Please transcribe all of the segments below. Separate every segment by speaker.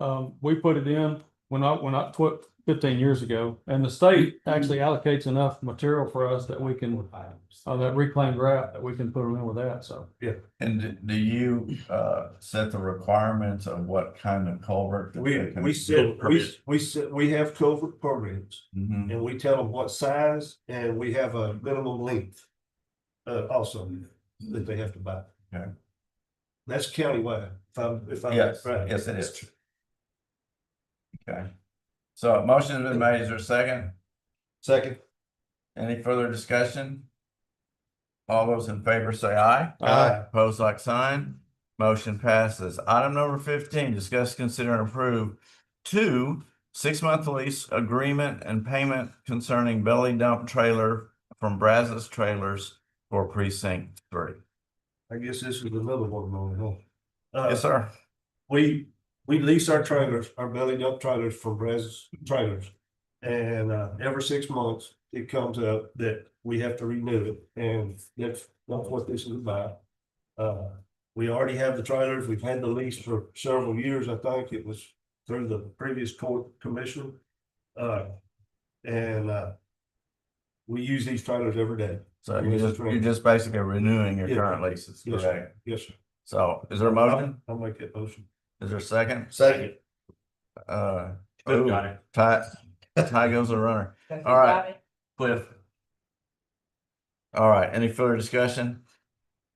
Speaker 1: Um, we put it in when I, when I, tw- fifteen years ago, and the state actually allocates enough material for us that we can, uh, that reclaimed ground that we can put it in with that, so.
Speaker 2: And d- do you uh set the requirements of what kind of culvert? that
Speaker 3: We,
Speaker 2: they can-
Speaker 3: we said, we, we said, we have covert programs
Speaker 2: Mhm.
Speaker 3: and we tell them what size and we have a minimum length. Uh, also that they have to buy.
Speaker 2: Okay.
Speaker 3: That's countywide, if I'm, if I'm
Speaker 2: Yes,
Speaker 3: right.
Speaker 2: yes, it is. Okay. So a motion has been made, is there a second?
Speaker 3: Second.
Speaker 2: Any further discussion? All those in favor say aye.
Speaker 3: Aye.
Speaker 2: Pose like sign. Motion passes. Item number fifteen, discuss, consider, and approve two six-month lease agreement and payment concerning belly dump trailer from Brazos Trailers for precinct three.
Speaker 3: I guess this is another one going on. Uh,
Speaker 2: Yes, sir.
Speaker 3: we, we lease our trailers, our belly dump trailers for Brazos trailers. And uh, every six months, it comes up that we have to renew it, and that's not what this is about. Uh, we already have the trailers, we've had the lease for several years, I think it was through the previous court commissioner. Uh, and uh. We use these trailers every day,
Speaker 2: So you're just, you're just basically renewing your current leases,
Speaker 3: Yes, sir.
Speaker 2: correct?
Speaker 3: yes, sir.
Speaker 2: So is there a motion?
Speaker 3: I'll make that motion.
Speaker 2: Is there a second?
Speaker 3: Second.
Speaker 2: Uh, ooh, Ty, Ty goes the runner. All right. Cliff. All right, any further discussion?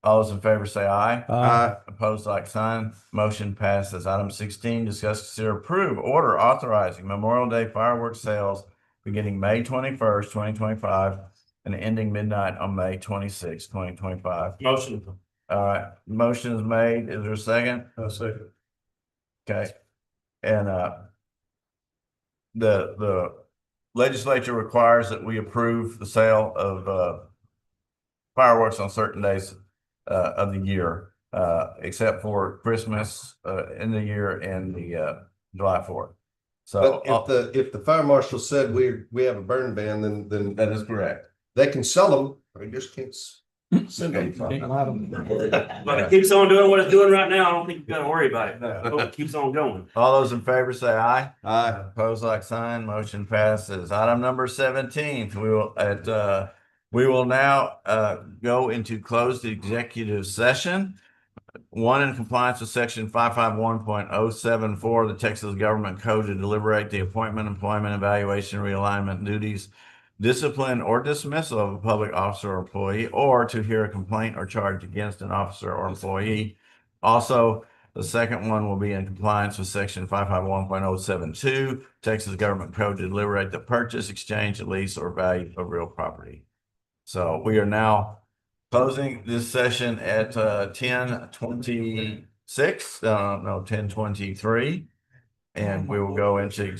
Speaker 2: All those in favor say aye.
Speaker 1: Aye.
Speaker 2: Opposed, like sign. Motion passes. Item sixteen, discuss, consider, approve order authorizing Memorial Day fireworks sales beginning May twenty-first, twenty twenty-five and ending midnight on May twenty-sixth, twenty twenty-five.
Speaker 3: Motion.
Speaker 2: All right, motion is made. Is there a second?
Speaker 3: Uh, second.
Speaker 2: Okay, and uh. The, the legislature requires that we approve the sale of uh. Fireworks on certain days uh of the year, uh except for Christmas uh in the year and the uh July fourth. So, uh,
Speaker 4: But if
Speaker 2: oh.
Speaker 4: the, if the fire marshal said we, we have a burn ban, then, then
Speaker 2: that is correct. Hmm.
Speaker 4: they can sell them, they just can't s- send
Speaker 1: Can't
Speaker 4: them.
Speaker 1: let 'em-
Speaker 5: But it keeps on doing what it's doing right now. I don't think you gotta worry about it.
Speaker 3: No.
Speaker 5: Hope it keeps on going.
Speaker 2: All those in favor say aye.
Speaker 4: Aye.
Speaker 2: Pose like sign, motion passes. Item number seventeen, we will at uh, we will now uh go into closed executive session. One in compliance with section five five one point oh seven four of the Texas Government Code to deliberate the appointment, employment, evaluation, realignment duties. Discipline or dismissal of a public officer or employee, or to hear a complaint or charge against an officer or employee. Also, the second one will be in compliance with section five five one point oh seven two, Texas Government Code to deliberate the purchase, exchange, lease, or value of real property. So we are now closing this session at uh ten twenty-six, uh, no, ten twenty-three. And we will go into